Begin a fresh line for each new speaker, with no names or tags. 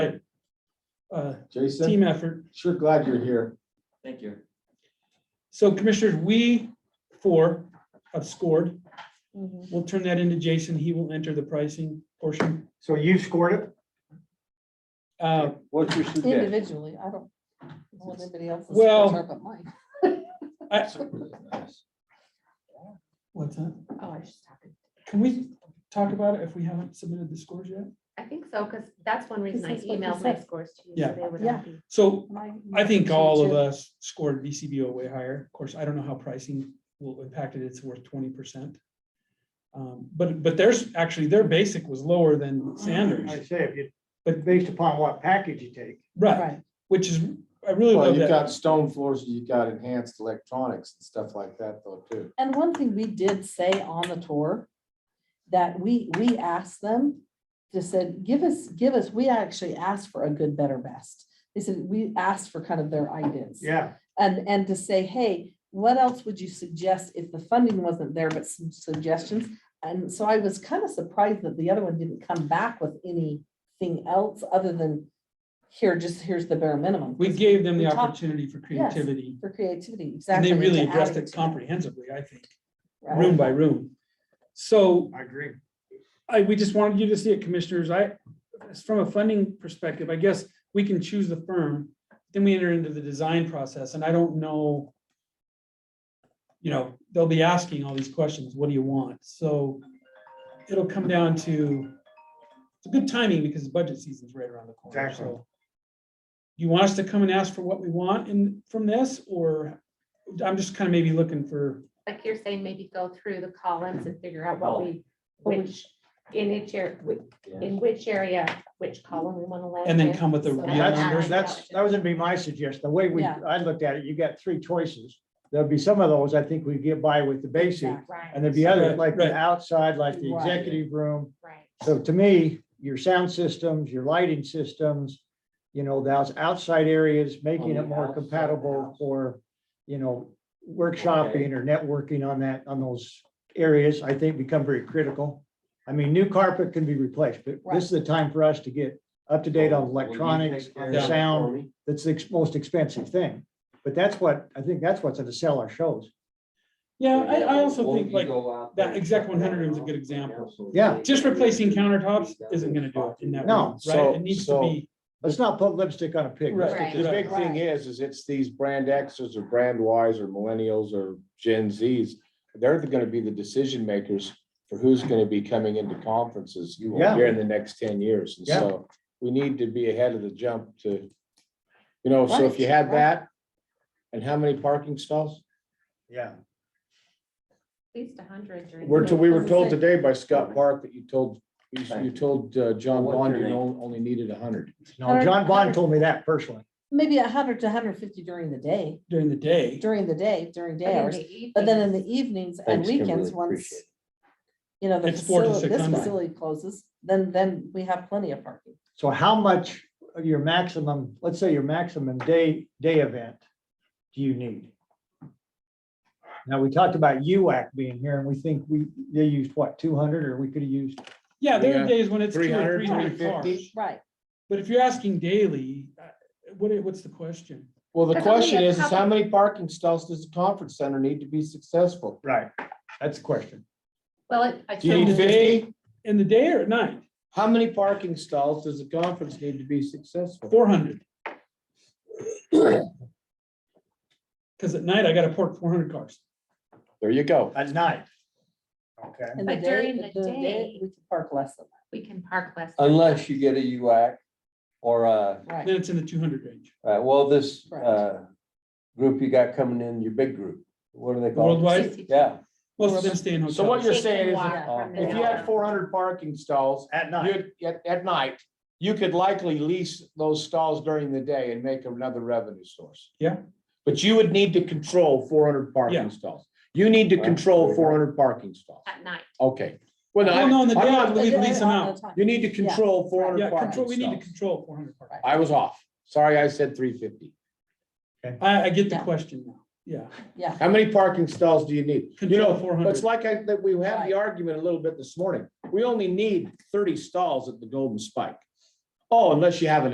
uh,
Jason,
team effort.
sure glad you're here.
Thank you.
So commissioners, we four have scored. We'll turn that into Jason. He will enter the pricing portion.
So you scored it?
Uh,
What's your suggestion?
Individually, I don't. know if anybody else's
Well-
scores are but mine.
What's that?
Oh, I was just talking.
Can we talk about it if we haven't submitted the scores yet?
I think so, because that's one reason I
is what you
emailed my
said.
scores to you.
Yeah.
so they would
Yeah.
all be-
So
Mine-
I think all of
too.
us scored VCBO way higher. Of course, I don't know how pricing will impact it. It's worth twenty percent. Um, But, but there's, actually, their basic was lower
Mm-hmm.
than
I
Sanders.
say, if you,
But-
but based upon what package you take.
Right,
Right,
which is, I really
Well,
love
you've
that.
got stone floors, you've got enhanced electronics and stuff like that though too.
and one thing we did say on the tour, that we, we asked them, just said, give us, give us, we actually asked for a good, better, best. They said, we asked for kind of their ideas.
Yeah,
And, and to say, hey, what else would you suggest if the funding wasn't there, but some suggestions? And so I was kind of surprised that the other one didn't come back with anything else other than here, just here's the bare minimum.
We gave them the
We talked-
opportunity for
Yes.
creativity.
For creativity,
And
exactly.
they
and
really
to add
addressed it
to
comprehensively, I think,
right?
room by room. So
I agree.
I, we just wanted you to see it, commissioners. I, from a funding perspective, I guess we can choose the firm. Then we enter into the design process and I don't know. You know, they'll be asking all these questions. What do you want? So it'll come down to. It's a good timing because budget season's right around the corner,
Exactly.
so. You want us to come and ask for what we want in, from this, or I'm just kind of maybe looking for,
Like you're saying, maybe go through the columns and figure out what we,
What we-
which, in each area, in which area, which column we want to land.
And then
in,
come with a
so
real
that-
Yeah,
That's, that's, that was gonna be my suggestion. The way we,
Yeah.
I looked at it, you got three choices. There'll be some of those, I think we get by with the basic,
Exactly.
and
Right,
there'll be others
Right,
like the
right.
outside, like the
Right.
executive room.
right.
So to me, your sound systems, your lighting systems, you know, those outside areas, making it more compatible for, you know, workshopping or networking on that, on those areas, I think become very critical. I mean, new carpet can be replaced, but this is the time for us to get up to date on electronics, on
Yeah.
sound. That's the ex- most expensive thing. But that's what, I think that's what's gonna sell our shows.
yeah, I, I also think like. that exec 100 room is a good example.
Yeah.
Just replacing countertops isn't gonna do it in that.
No,
room, Right,
so-
it needs to
so-
be,
Let's not put lipstick on a pig. Let's
Right.
get
The
this-
big thing is, is it's these brand Xers or brand Ys or millennials or Gen Zs. They're gonna be the decision makers for who's gonna be coming into conferences
Yeah.
here in the next ten years. And
Yeah.
so we need to be ahead of the jump to, you know, so if you had that, and how many parking stalls?
Yeah.
At least a hundred during.
We're,
the
to- we
day.
were told today by Scott Park that you told, you you told uh, John Bond you on- only needed hundred.
No, John Bond told me that personally.
Maybe a hundred to hundred fifty during the day,
during the day.
during the day, during
But
day
in
hours,
the E evening,
but then in the E evenings and
Thanks, Kimberly,
weekends, once,
appreciate it.
you know, the
It's four to
facility,
six
this
hundred.
facility closes, then, then we have plenty of parking.
So how much of your maximum, let's say your maximum day, day event do you need? Now, we talked about UAC being here and we think we, they used what, two hundred or we could have used,
Yeah, there are
Yeah.
days when it's two or
300,
three hundred
350.
cars.
Right.
But if you're asking daily, uh, what, i- what's the question?
Well, the
There's only
question
a
is, is how
couple-
many parking stalls does the conference center need to be successful?
right, that's the question.
Well, it- I.
Do you need
so-
fifty?
In the day or at night?
How many parking stalls does the conference need to be successful?
Four hundred. Cause at night I gotta park four hundred cars.
There you go.
At night. Okay.
And the
But
day-
during the day-
We can park less than
We can park less. than-
Unless you get a UAC or a,
that, right?
Then it's in the two hundred range.
uh, well, this
Right.
uh, group you got coming in, your big group, what are they called?
Worldwide,
60.
Yeah,
most of them stay in hotels.
So what you're
Shake
saying
and
is,
walk
oh.
from
if
the uh,
you had
hotel.
four hundred parking stalls
At night.
you'd- at, at night, you could likely lease those stalls during the day and make another revenue source.
Yeah.
But you would need to control four hundred
Yeah.
parking stalls. You need to
Right.
control four hundred parking stalls.
At night.
Okay. Well,
Well, no,
no,
in the
I'm
day,
not-
we
But
lease them
all
out.
the time.
you need to control four
Yeah,
hundred
control, we
parking
need to
stalls.
control four hundred cars.
I was off. Sorry, I said three fifty.
I, I get the
Yeah.
question now. Yeah.
Yeah,
How many parking stalls do you need? You
Control
know,
400.
it's like I, that we had
Right.
the argument a little bit this morning. We only need thirty stalls at the Golden Spike. Oh, unless you have an